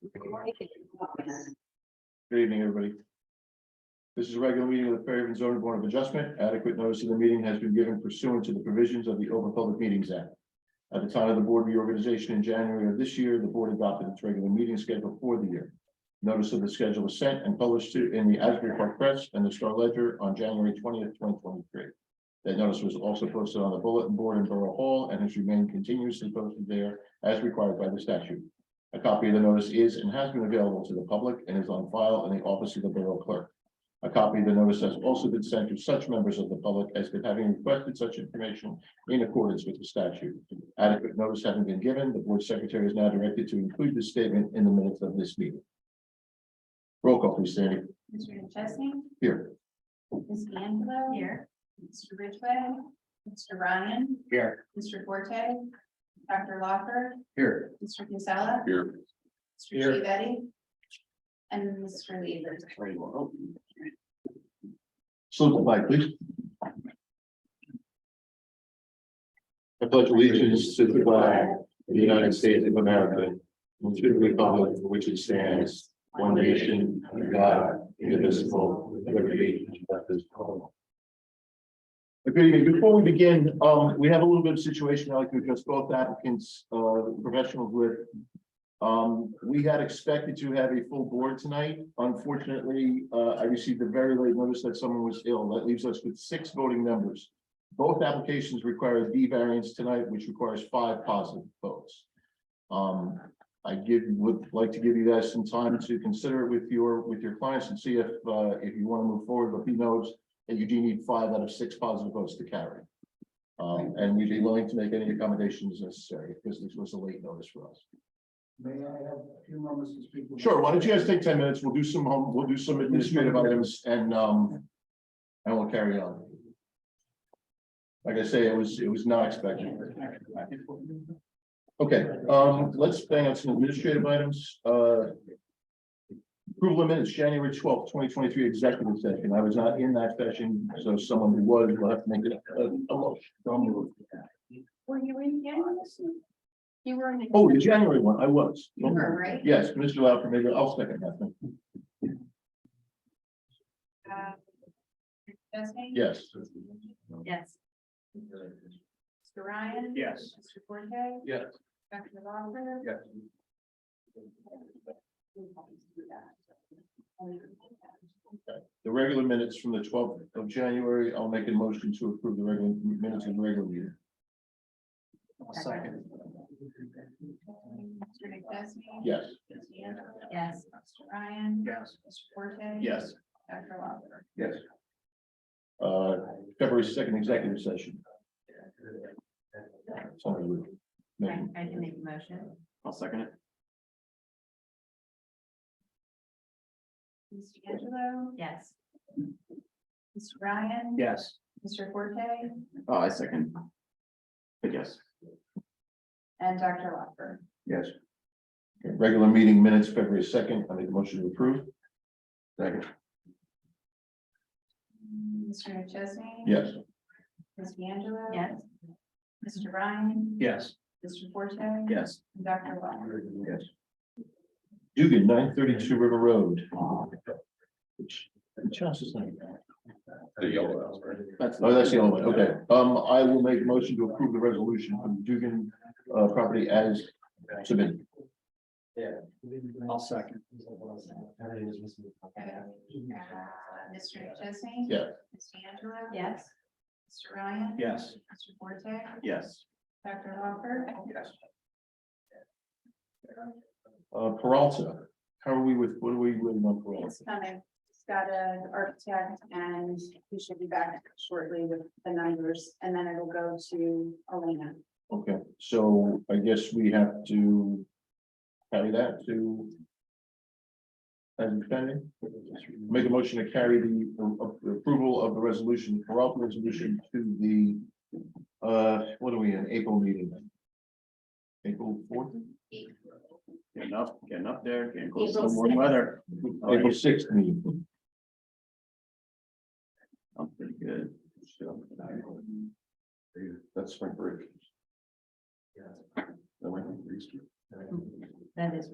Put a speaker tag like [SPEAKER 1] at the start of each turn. [SPEAKER 1] Good evening, everybody. This is a regular meeting of the Fairhaven zoning board of adjustment. Adequate notice of the meeting has been given pursuant to the provisions of the Open Public Meetings Act. At the time of the board reorganization in January of this year, the board adopted its regular meeting schedule for the year. Notice of the schedule was sent and published to- in the Asbury Park Press and the Star Ledger on January twentieth, twenty twenty-three. That notice was also posted on the bulletin board in Borough Hall and has remained continuously posted there as required by the statute. A copy of the notice is and has been available to the public and is on file in the office of the Borough Clerk. A copy of the notice has also been sent to such members of the public as could having requested such information in accordance with the statute. Adequate notice having been given, the Board Secretary is now directed to include this statement in the minutes of this meeting. Roll call, please, Sandy.
[SPEAKER 2] Mr. McChesney?
[SPEAKER 1] Here.
[SPEAKER 2] Ms. D'Angelo? Here. Mr. Ridgway? Mr. Ryan?
[SPEAKER 1] Here.
[SPEAKER 2] Mr. Forte? Dr. Locker?
[SPEAKER 1] Here.
[SPEAKER 2] Mr. Casella?
[SPEAKER 1] Here.
[SPEAKER 2] Mr. Chiavetti? And Mr. Weaver?
[SPEAKER 1] Salute the flag, please. I pledge allegiance to the flag of the United States of America, and to the republic for which it stands, one nation, under God, indivisible, with liberty and justice for all. Good evening. Before we begin, um, we have a little bit of situation. I'd like to address both applicants, uh, professionals with. Um, we had expected to have a full board tonight. Unfortunately, uh, I received a very late notice that someone was ill. That leaves us with six voting members. Both applications require a D variance tonight, which requires five positive votes. Um, I give, would like to give you guys some time to consider it with your, with your clients and see if, uh, if you want to move forward, but he knows that you do need five out of six positive votes to carry. Um, and we'd be willing to make any accommodations necessary because this was a late notice for us.
[SPEAKER 3] May I have a few moments to speak? with-
[SPEAKER 1] Sure, why don't you guys take ten minutes, we'll do some home, we'll do some administrative items and um. And we'll carry on. Like I say, it was, it was not expected. Okay, um, let's bang out some administrative items, uh. Approval of minutes, January twelfth, twenty twenty-three executive session, I was not in that session, so someone who was will have to make it. a- a motion.
[SPEAKER 2] Were you in January? You were in.
[SPEAKER 1] Oh, the January one, I was.
[SPEAKER 2] You were, right?
[SPEAKER 1] Yes, Mr. Lauer, maybe I'll second that, then.
[SPEAKER 2] Uh, Mr. McChesney?
[SPEAKER 1] yes.
[SPEAKER 2] Yes. Mr. Ryan?
[SPEAKER 3] Yes.
[SPEAKER 2] Mr. Forte?
[SPEAKER 1] Yes.
[SPEAKER 2] Dr. Locker?
[SPEAKER 1] Yes. The regular minutes from the twelfth of January, I'll make a motion to approve the regular minutes of the regular meeting.
[SPEAKER 3] Second.
[SPEAKER 2] Mr. McDusky?
[SPEAKER 1] Yes,
[SPEAKER 2] Yes. Mr. Ryan?
[SPEAKER 3] Yes.
[SPEAKER 2] Mr. Forte?
[SPEAKER 1] Yes.
[SPEAKER 2] Dr. Locker?
[SPEAKER 3] Yes.
[SPEAKER 1] uh, February second executive session. Somebody would make-
[SPEAKER 2] I can make a motion.
[SPEAKER 3] I'll second it.
[SPEAKER 2] Mr. Angelo?
[SPEAKER 4] Yes,
[SPEAKER 2] Mr. Ryan?
[SPEAKER 3] Yes.
[SPEAKER 2] Mr. Forte?
[SPEAKER 3] Oh, I second. But yes.
[SPEAKER 2] And Dr. Locker?
[SPEAKER 3] Yes.
[SPEAKER 1] Regular meeting minutes, February second, I make a motion to approve. Second.
[SPEAKER 2] Mr. McChesney?
[SPEAKER 1] Yes,
[SPEAKER 2] Ms. D'Angelo?
[SPEAKER 4] yes,
[SPEAKER 2] Mr. Ryan?
[SPEAKER 3] Yes.
[SPEAKER 2] Mr. Forte?
[SPEAKER 3] Yes.
[SPEAKER 2] And Dr. Locker?
[SPEAKER 3] Yes.
[SPEAKER 1] Dugan, nine thirty-two River Road. Which, which house is that?
[SPEAKER 3] That's.
[SPEAKER 1] Oh, that's the only one, okay. Um, I will make a motion to approve the resolution from Dugan, uh, property as submitted.
[SPEAKER 3] I'll second.
[SPEAKER 2] Okay. Uh, Mr. McChesney?
[SPEAKER 1] Yeah.
[SPEAKER 2] Ms. D'Angelo?
[SPEAKER 4] yes,
[SPEAKER 2] Mr. Ryan?
[SPEAKER 3] Yes.
[SPEAKER 2] Mr. Forte?
[SPEAKER 3] Yes.
[SPEAKER 2] Dr. Locker?
[SPEAKER 3] Yes.
[SPEAKER 1] Uh, Peralta, how are we with, what are we with on Peralta?
[SPEAKER 2] It's coming. It's got an architect and he should be back shortly with the numbers and then it'll go to Elena.
[SPEAKER 1] Okay, so I guess we have to carry that to as pending. Make a motion to carry the a- a- approval of the resolution, Peralta resolution to the, uh, what are we in, April meeting? April fourth?
[SPEAKER 3] Getting up, getting up there, getting close to the
[SPEAKER 2] April
[SPEAKER 3] warm weather. Oh,
[SPEAKER 1] April sixth meeting.
[SPEAKER 3] I'm pretty good.
[SPEAKER 1] That's my break.
[SPEAKER 3] That went on Easter.
[SPEAKER 4] That is.